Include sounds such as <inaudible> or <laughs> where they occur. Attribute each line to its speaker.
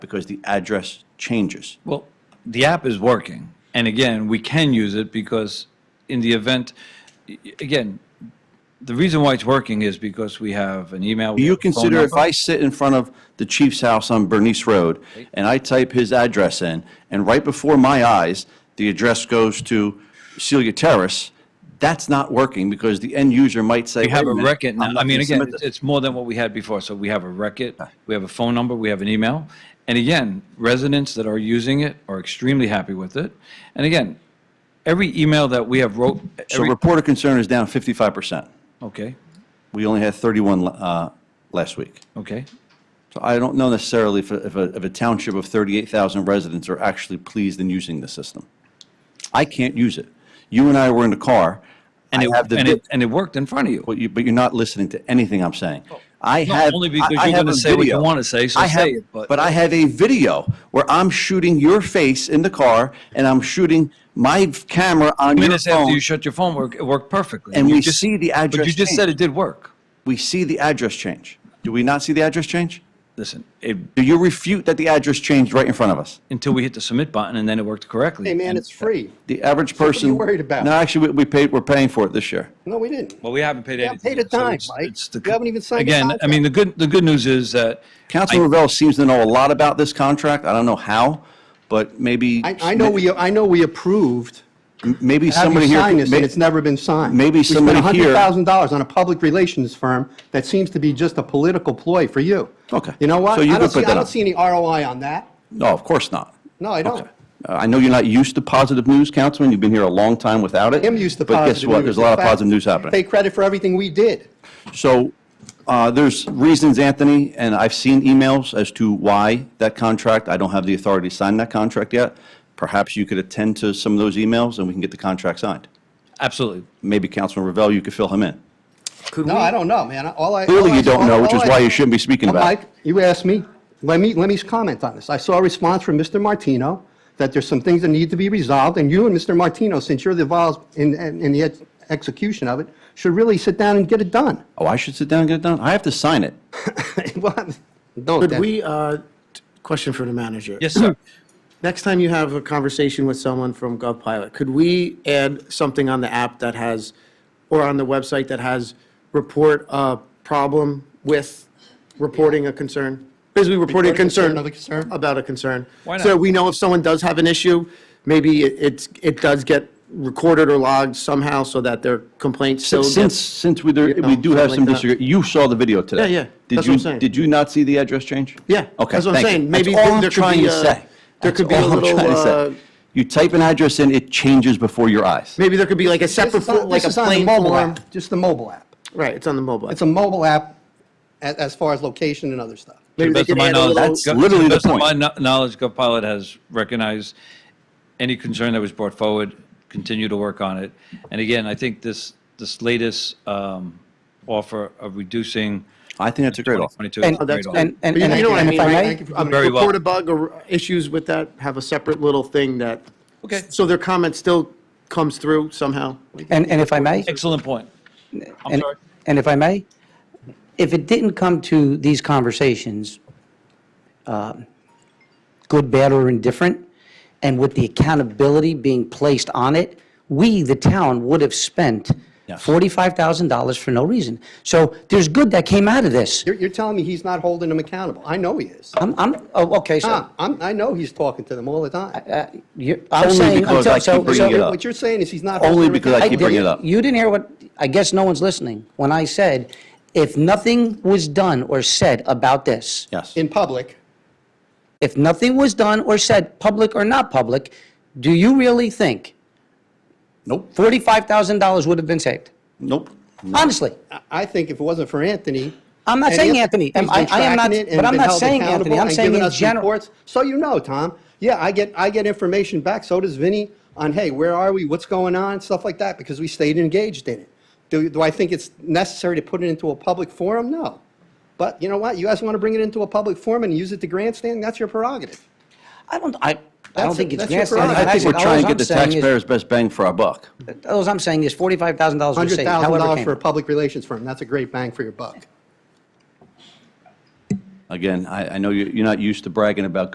Speaker 1: because the address changes.
Speaker 2: Well, the app is working, and again, we can use it because in the event, a- again, the reason why it's working is because we have an
Speaker 1: Do
Speaker 2: email. we
Speaker 1: you
Speaker 2: have a phone
Speaker 1: consider if
Speaker 2: number.
Speaker 1: I sit in front of the chief's house on Bernice Road and I type his address in, and right before my eyes, the address goes to Celia Terrace, that's not working because the end user might say,
Speaker 2: We have
Speaker 1: "Wait
Speaker 2: a
Speaker 1: minute,
Speaker 2: record
Speaker 1: I'm
Speaker 2: now.
Speaker 1: not
Speaker 2: I mean,
Speaker 1: gonna
Speaker 2: again,
Speaker 1: submit
Speaker 2: it's
Speaker 1: this."
Speaker 2: it's more than what we had before. So we have a record, we have a phone number, we have an email. And again, residents that are using it are extremely happy with it. And again, every email that we have wrote,
Speaker 1: So
Speaker 2: every-
Speaker 1: report of concern is down 55%.
Speaker 2: okay,
Speaker 1: We only had 31 uh, last week.
Speaker 2: okay.
Speaker 1: So I don't know necessarily if, a- if a, if a township of 38,000 residents are actually pleased in using the system. I can't use it. You and I were in the car.
Speaker 2: And
Speaker 1: I have
Speaker 2: it,
Speaker 1: the
Speaker 2: and
Speaker 1: vi-
Speaker 2: it, and it worked in front of you.
Speaker 1: But you, but you're not listening to anything I'm saying. I
Speaker 2: No,
Speaker 1: have.
Speaker 2: only because
Speaker 1: I- I
Speaker 2: you're
Speaker 1: have
Speaker 2: gonna
Speaker 1: a
Speaker 2: say what you
Speaker 1: video.
Speaker 2: wanna say, so
Speaker 1: I have-
Speaker 2: say it, but-
Speaker 1: But I have a video where I'm shooting your face in the car and I'm shooting my f- camera on your
Speaker 2: Minutes after
Speaker 1: phone.
Speaker 2: you shut your phone, work- it worked perfectly.
Speaker 1: And
Speaker 2: You
Speaker 1: we
Speaker 2: just-
Speaker 1: see the
Speaker 2: But you
Speaker 1: address
Speaker 2: just said
Speaker 1: change.
Speaker 2: it did work.
Speaker 1: We see the address change. Do we not see the address change?
Speaker 2: Listen, it,
Speaker 1: Do you refute that the address changed right in front of us?
Speaker 2: until we hit the submit button and then it worked correctly.
Speaker 3: Hey, man,
Speaker 2: And
Speaker 3: it's free.
Speaker 1: The average
Speaker 3: what are you
Speaker 1: person.
Speaker 3: worried about?
Speaker 1: No, actually, we we paid, we're paying for it this year.
Speaker 3: No, we didn't.
Speaker 2: Well, we haven't paid
Speaker 3: haven't
Speaker 2: anything.
Speaker 3: paid a
Speaker 2: so
Speaker 3: dime,
Speaker 2: it's-
Speaker 3: Mike.
Speaker 2: it's the-
Speaker 3: You haven't even signed a
Speaker 2: Again, I mean, the good, the good news is that.
Speaker 1: Councilman Revelle seems to know a lot about this contract. I don't know how, but maybe.
Speaker 3: I, I know we, I know we approved,
Speaker 1: Maybe
Speaker 3: have you
Speaker 1: somebody here.
Speaker 3: sign this,
Speaker 1: may-
Speaker 3: and it's never been signed.
Speaker 1: maybe somebody here-
Speaker 3: We spent $100,000 on a public relations firm that seems to be just a political ploy for you.
Speaker 1: Okay.
Speaker 3: You know what?
Speaker 1: So you
Speaker 3: I
Speaker 1: could
Speaker 3: don't see-
Speaker 1: put that
Speaker 3: I
Speaker 1: up.
Speaker 3: don't see any ROI on that.
Speaker 1: No, of course not.
Speaker 3: No, I don't.
Speaker 1: Okay. Uh, I know you're not used to positive news, Councilman. You've been here a long time without it.
Speaker 3: Him used to
Speaker 1: But
Speaker 3: positive
Speaker 1: guess what? There's a lot
Speaker 3: In
Speaker 1: of
Speaker 3: fact,
Speaker 1: positive news happening.
Speaker 3: Take credit for everything we did.
Speaker 1: So uh, there's reasons, Anthony, and I've seen emails as to why that contract, I don't have the authority to sign that contract yet. Perhaps you could attend to some of those emails and we can get the contract signed.
Speaker 2: Absolutely.
Speaker 1: Maybe Councilman Ravel, you could fill him in.
Speaker 4: Oh, Could
Speaker 3: No,
Speaker 4: we-
Speaker 3: I don't know, man. All I.
Speaker 1: Clearly
Speaker 3: all I
Speaker 1: you don't
Speaker 3: saw-
Speaker 1: know, which
Speaker 3: all
Speaker 4: Oh,
Speaker 1: is
Speaker 3: I
Speaker 1: why you
Speaker 3: saw-
Speaker 1: shouldn't be speaking
Speaker 3: Well,
Speaker 1: about it.
Speaker 3: Mike, you asked me, let me, let me comment on this. I saw a response from Mr. Martino that there's some things that need to be resolved, and you and Mr. Martino, since you're involved in, in in the ex- execution of it, should really sit down and get it done. <laughs>
Speaker 1: Oh, I should sit down and get it done? I have to sign it.
Speaker 3: Well, No,
Speaker 4: Could
Speaker 3: that-
Speaker 4: we, uh, t- question for the manager.
Speaker 2: Yes,
Speaker 3: <laughs>
Speaker 2: sir.
Speaker 4: Next time you have a conversation with someone from GovPilot, could we add something on the app that has, or on the website that has report a problem with reporting a concern? Basically, reporting a concern.
Speaker 3: Reporting a concern of a concern.
Speaker 4: About a concern.
Speaker 2: Why not?
Speaker 4: So we know if someone does have an issue, maybe it- it's, it does get recorded or logged somehow so that their complaint still gets.
Speaker 1: Since, since we, there-
Speaker 4: You know,
Speaker 1: we do have some
Speaker 4: something like that.
Speaker 1: disagree, you saw the video today.
Speaker 4: Yeah, yeah.
Speaker 1: Did
Speaker 4: That's
Speaker 1: you-
Speaker 4: what I'm saying.
Speaker 1: Did you not see the address change?
Speaker 4: Yeah,
Speaker 1: Okay,
Speaker 4: that's
Speaker 1: thank
Speaker 4: what I'm
Speaker 1: you.
Speaker 4: saying. Maybe
Speaker 1: That's all
Speaker 4: there-
Speaker 1: I'm
Speaker 4: there could
Speaker 1: trying
Speaker 4: be
Speaker 1: to
Speaker 4: a-
Speaker 1: say.
Speaker 4: there
Speaker 1: That's
Speaker 4: could be a
Speaker 1: all I'm
Speaker 4: little,
Speaker 1: trying to say.
Speaker 4: uh,
Speaker 1: You type an address in, it changes before your eyes.
Speaker 4: Maybe there could be like a
Speaker 3: This
Speaker 4: separate,
Speaker 3: is
Speaker 4: fo-
Speaker 3: on-
Speaker 4: like
Speaker 3: this
Speaker 4: a
Speaker 3: is on the
Speaker 4: plain
Speaker 3: mobile
Speaker 4: form.
Speaker 3: app, just the mobile app.
Speaker 4: Right, it's on the mobile.
Speaker 3: It's a mobile app a- as far as location and other stuff.
Speaker 4: Maybe they
Speaker 2: best of
Speaker 4: could
Speaker 2: my
Speaker 4: add a
Speaker 2: knowledge-
Speaker 4: little.
Speaker 1: That's
Speaker 2: Gov-
Speaker 1: literally
Speaker 2: to
Speaker 1: the
Speaker 2: best of
Speaker 1: point.
Speaker 2: My kno- knowledge, GovPilot has recognized any concern that was brought forward, continue to work on it. And again, I think this, this latest um, offer of reducing
Speaker 1: I think that's a great offer.
Speaker 2: 2022
Speaker 5: And,
Speaker 2: is a
Speaker 4: Oh,
Speaker 2: great offer.
Speaker 5: and, and,
Speaker 4: You
Speaker 5: and
Speaker 4: know what I
Speaker 5: and
Speaker 4: mean,
Speaker 5: if I
Speaker 4: right?
Speaker 5: may,
Speaker 3: Thank you for
Speaker 4: Um,
Speaker 3: coming.
Speaker 2: Very well.
Speaker 4: Report a bug or issues with that, have a separate little thing that.
Speaker 2: Okay.
Speaker 4: So their comment still comes through somehow.
Speaker 5: and, and if I may,
Speaker 2: Excellent point. I'm
Speaker 5: and,
Speaker 2: sorry.
Speaker 5: and if I may, if it didn't come to these conversations, um, good, bad, or indifferent, and with the accountability being placed on it, we, the town, would have spent
Speaker 1: Yes.
Speaker 5: $45,000 for no reason. So there's good that came out of this.
Speaker 3: You're, you're telling me he's not holding them accountable. I know he is.
Speaker 5: I'm, I'm, oh, okay,
Speaker 1: Ah.
Speaker 5: so,
Speaker 3: Tom, I'm, I know he's talking to them all the time.
Speaker 5: you're, I'm
Speaker 1: Only
Speaker 5: saying,
Speaker 1: because
Speaker 5: until-
Speaker 1: I keep
Speaker 5: so,
Speaker 1: bringing it
Speaker 5: so,
Speaker 1: up.
Speaker 3: What you're saying is he's not.
Speaker 1: Only
Speaker 3: holding them
Speaker 1: because I
Speaker 3: accountable.
Speaker 1: keep bringing it
Speaker 5: didn't-
Speaker 1: up.
Speaker 5: You didn't hear what, I guess no one's listening, when I said, if nothing was done or said about this,
Speaker 1: Yes.
Speaker 3: In public,
Speaker 5: if nothing was done or said, public or not public, do you really think
Speaker 1: Nope,
Speaker 5: $45,000 would have been saved?
Speaker 1: nope.
Speaker 5: Honestly,
Speaker 3: I- I think if it wasn't for Anthony.
Speaker 5: I'm not
Speaker 3: and
Speaker 5: saying
Speaker 3: Anth-
Speaker 5: Anthony.
Speaker 3: he's
Speaker 5: Am- I-
Speaker 3: been
Speaker 5: I am not-
Speaker 3: tracking it and
Speaker 5: but I'm
Speaker 3: been
Speaker 5: not
Speaker 3: held
Speaker 5: saying Anthony.
Speaker 3: accountable
Speaker 5: I'm
Speaker 3: and
Speaker 5: saying
Speaker 3: giving
Speaker 5: in
Speaker 3: us
Speaker 5: general.
Speaker 3: reports. So you know, Tom, yeah, I get, I get information back, so does Vinny, on, hey, where are we, what's going on, stuff like that, because we stayed engaged in it. Do, do I think it's necessary to put it into a public forum? No. But you know what, you guys want to bring it into a public forum and use it to grandstand, that's your prerogative.
Speaker 5: I don't, I, I
Speaker 3: That's
Speaker 5: don't
Speaker 3: a-
Speaker 5: think it's
Speaker 3: that's your
Speaker 5: grandstanding.
Speaker 1: I
Speaker 3: prerogative.
Speaker 1: think we're
Speaker 5: All
Speaker 1: trying to
Speaker 5: I'm
Speaker 1: get the
Speaker 5: saying is-
Speaker 1: taxpayers' best bang for our buck.
Speaker 5: All I'm saying is $45,000 was saved, however it
Speaker 3: $100,000
Speaker 5: came.
Speaker 3: for a public relations firm, that's a great bang for your buck.
Speaker 1: Again, I, I know you- you're not used to bragging about